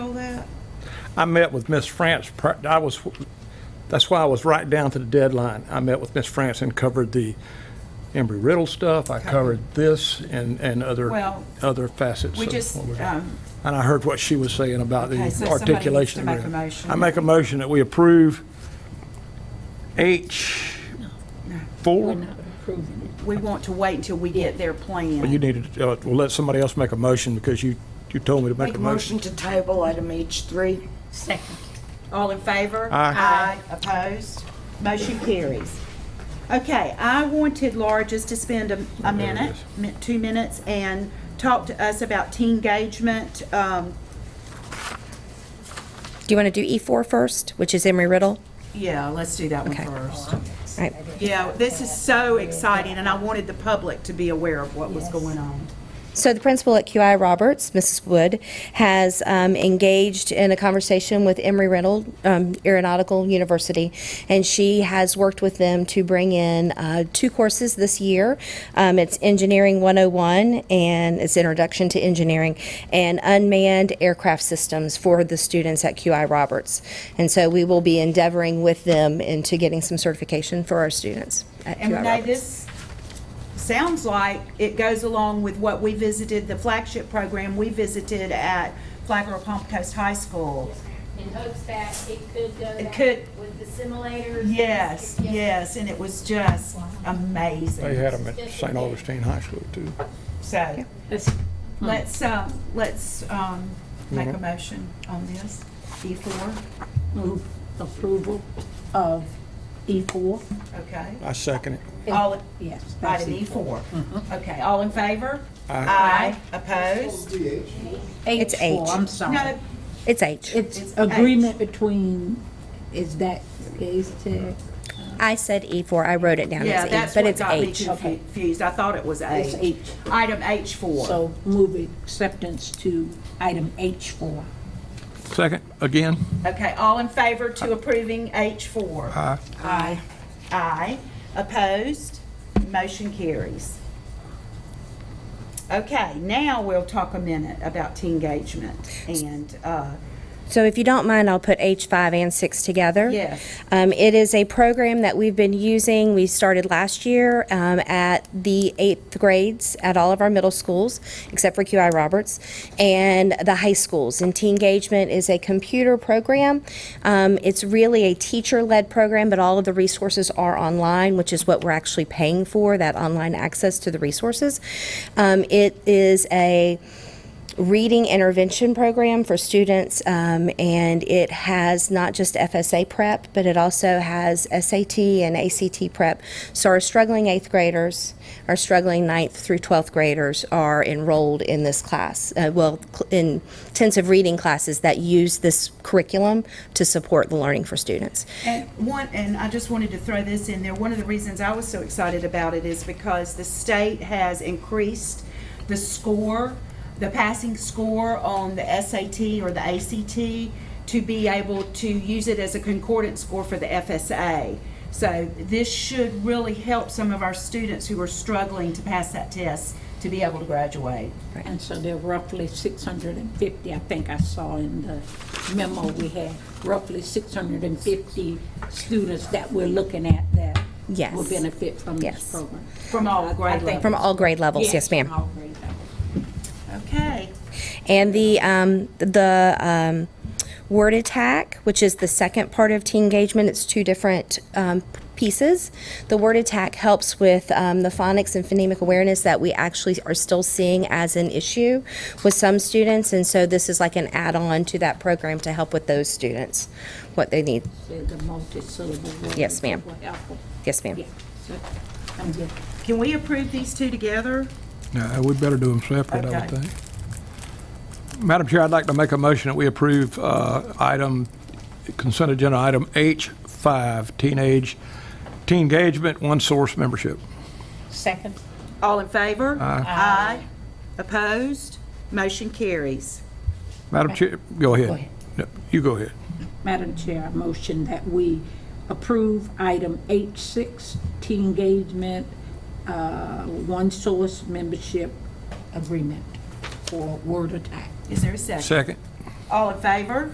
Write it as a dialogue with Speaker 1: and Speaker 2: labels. Speaker 1: I met with Miss France, pri- I was, that's why I was right down to the deadline. I met with Miss France and covered the Embry-Riddle stuff, I covered this and, and other,
Speaker 2: Well,
Speaker 1: other facets.
Speaker 2: We
Speaker 1: of
Speaker 2: just,
Speaker 1: what we're doing.
Speaker 2: um,
Speaker 1: And I heard what she was saying about the
Speaker 2: Okay, so somebody needs
Speaker 1: articulation.
Speaker 2: to make a
Speaker 1: agreement.
Speaker 2: motion.
Speaker 1: I make a motion that we approve H four.
Speaker 2: we want to wait until we get their
Speaker 1: Well, You
Speaker 2: plan.
Speaker 1: needed, to, uh, well, let somebody else make a motion because you, you told me to make
Speaker 3: Make
Speaker 1: a
Speaker 3: a
Speaker 1: motion.
Speaker 3: motion to table item H3.
Speaker 4: Second.
Speaker 2: All in favor?
Speaker 1: Aye.
Speaker 2: Aye. Opposed? Motion carries. Okay, I wanted Laura just to spend a, a
Speaker 1: Oh, There it
Speaker 2: minute, mi- two minutes, and talk to us about teen engagement. Um,
Speaker 5: Do you want to do E4 first, which is Emory Riddle?
Speaker 2: yeah, let's do that one
Speaker 5: Okay.
Speaker 2: first.
Speaker 5: All right.
Speaker 2: Yeah, this is so exciting, and I wanted the public to be aware of what was going on.
Speaker 5: So the principal at QI Roberts, Mrs. Wood, has um, engaged in a conversation with Emory Riddle um, Aeronautical University, and she has worked with them to bring in uh, two courses this year. Um, It's Engineering 101, and it's Introduction to Engineering, and Unmanned Aircraft Systems for the students at QI Roberts. And so we will be endeavoring with them into getting some certification for our students at QI
Speaker 2: And Renee,
Speaker 5: Roberts.
Speaker 2: this sounds like it goes along with what we visited, the flagship program we visited at Flagler Palm Coast High School.
Speaker 4: In hopes that it could go
Speaker 2: It
Speaker 4: back
Speaker 2: could-
Speaker 4: with the simulators.
Speaker 2: Yes, yes, and it was just
Speaker 1: They
Speaker 2: amazing.
Speaker 1: had them at St. Augustine High School too.
Speaker 2: So, let's, um, let's, um, make
Speaker 1: Mm-hmm.
Speaker 2: a motion on this, E four,
Speaker 6: Move approval of E4?
Speaker 2: okay?
Speaker 1: I second it.
Speaker 2: All,
Speaker 6: Yes. that's
Speaker 2: item E four, okay, all in favor? Aye. Opposed?
Speaker 5: It's
Speaker 6: H4,
Speaker 5: H.
Speaker 6: I'm sorry.
Speaker 2: No,
Speaker 5: It's H.
Speaker 6: It's agreement between, is that Gaze Tech?
Speaker 5: I said E4, I wrote it down
Speaker 2: yeah,
Speaker 5: as E,
Speaker 2: that's
Speaker 5: but
Speaker 2: what
Speaker 5: it's
Speaker 2: got me
Speaker 5: H.
Speaker 6: Okay.
Speaker 2: confused, I thought it was
Speaker 6: It's
Speaker 2: H.
Speaker 6: H.
Speaker 2: Item H four.
Speaker 6: So move acceptance to item H4.
Speaker 1: Second, again?
Speaker 2: Okay, all in favor to approving H4? Aye. Aye. Aye. Opposed? Motion carries. Okay, now we'll talk a minute about teen engagement and, uh,
Speaker 5: So if you don't mind, I'll put H5 and 6 together.
Speaker 2: Yes.
Speaker 5: Um, It is a program that we've been using, we started last year um, at the eighth grades at all of our middle schools, except for QI Roberts, and the high schools. And Teen Engagement is a computer program. Um, It's really a teacher-led program, but all of the resources are online, which is what we're actually paying for, that online access to the resources. Um, It is a reading intervention program for students, um, and it has not just FSA prep, but it also has SAT and ACT prep. So our struggling eighth graders, our struggling ninth through 12th graders are enrolled in this class, uh, well, cl- in intensive reading classes that use this curriculum to support the learning for students.
Speaker 2: And one, and I just wanted to throw this in there, one of the reasons I was so excited about it is because the state has increased the score, the passing score on the SAT or the ACT to be able to use it as a concordance score for the FSA. So this should really help some of our students who are struggling to pass that test to be able to graduate.
Speaker 6: And so there are roughly 650, I think I saw in the memo we had, roughly 650 students that we're looking at that
Speaker 5: Yes.
Speaker 6: will benefit from this
Speaker 5: Yes.
Speaker 6: program.
Speaker 2: From all grade
Speaker 6: I think
Speaker 2: levels.
Speaker 5: From all grade levels, yes, ma'am.
Speaker 6: from all grade levels.
Speaker 2: Okay,
Speaker 5: And the, um, the, um, word attack, which is the second part of teen engagement, it's two different, um, pieces. The word attack helps with, um, the phonics and phonemic awareness that we actually are still seeing as an issue with some students. And so this is like an add-on to that program to help with those students, what they need.
Speaker 6: There's a multi-syllable word.
Speaker 5: Yes, ma'am.
Speaker 6: Will help.
Speaker 5: Yes, ma'am.
Speaker 6: Yeah, so I'm good.
Speaker 2: can we approve these two together?
Speaker 1: No, we better do them separate, I
Speaker 2: Okay.
Speaker 1: would think. Madam Chair, I'd like to make a motion that we approve uh, item, consent agenda item H5, teenage, teen engagement, one source membership.
Speaker 6: Second.
Speaker 2: All in favor? Aye. Opposed? Motion carries.
Speaker 1: Madam Chair, go ahead. No, You go ahead.
Speaker 6: Madam Chair, I motion that we approve item H6, teen engagement, uh, one source membership agreement for Word Attack.
Speaker 2: Is there a second?
Speaker 1: Second.
Speaker 2: All in favor?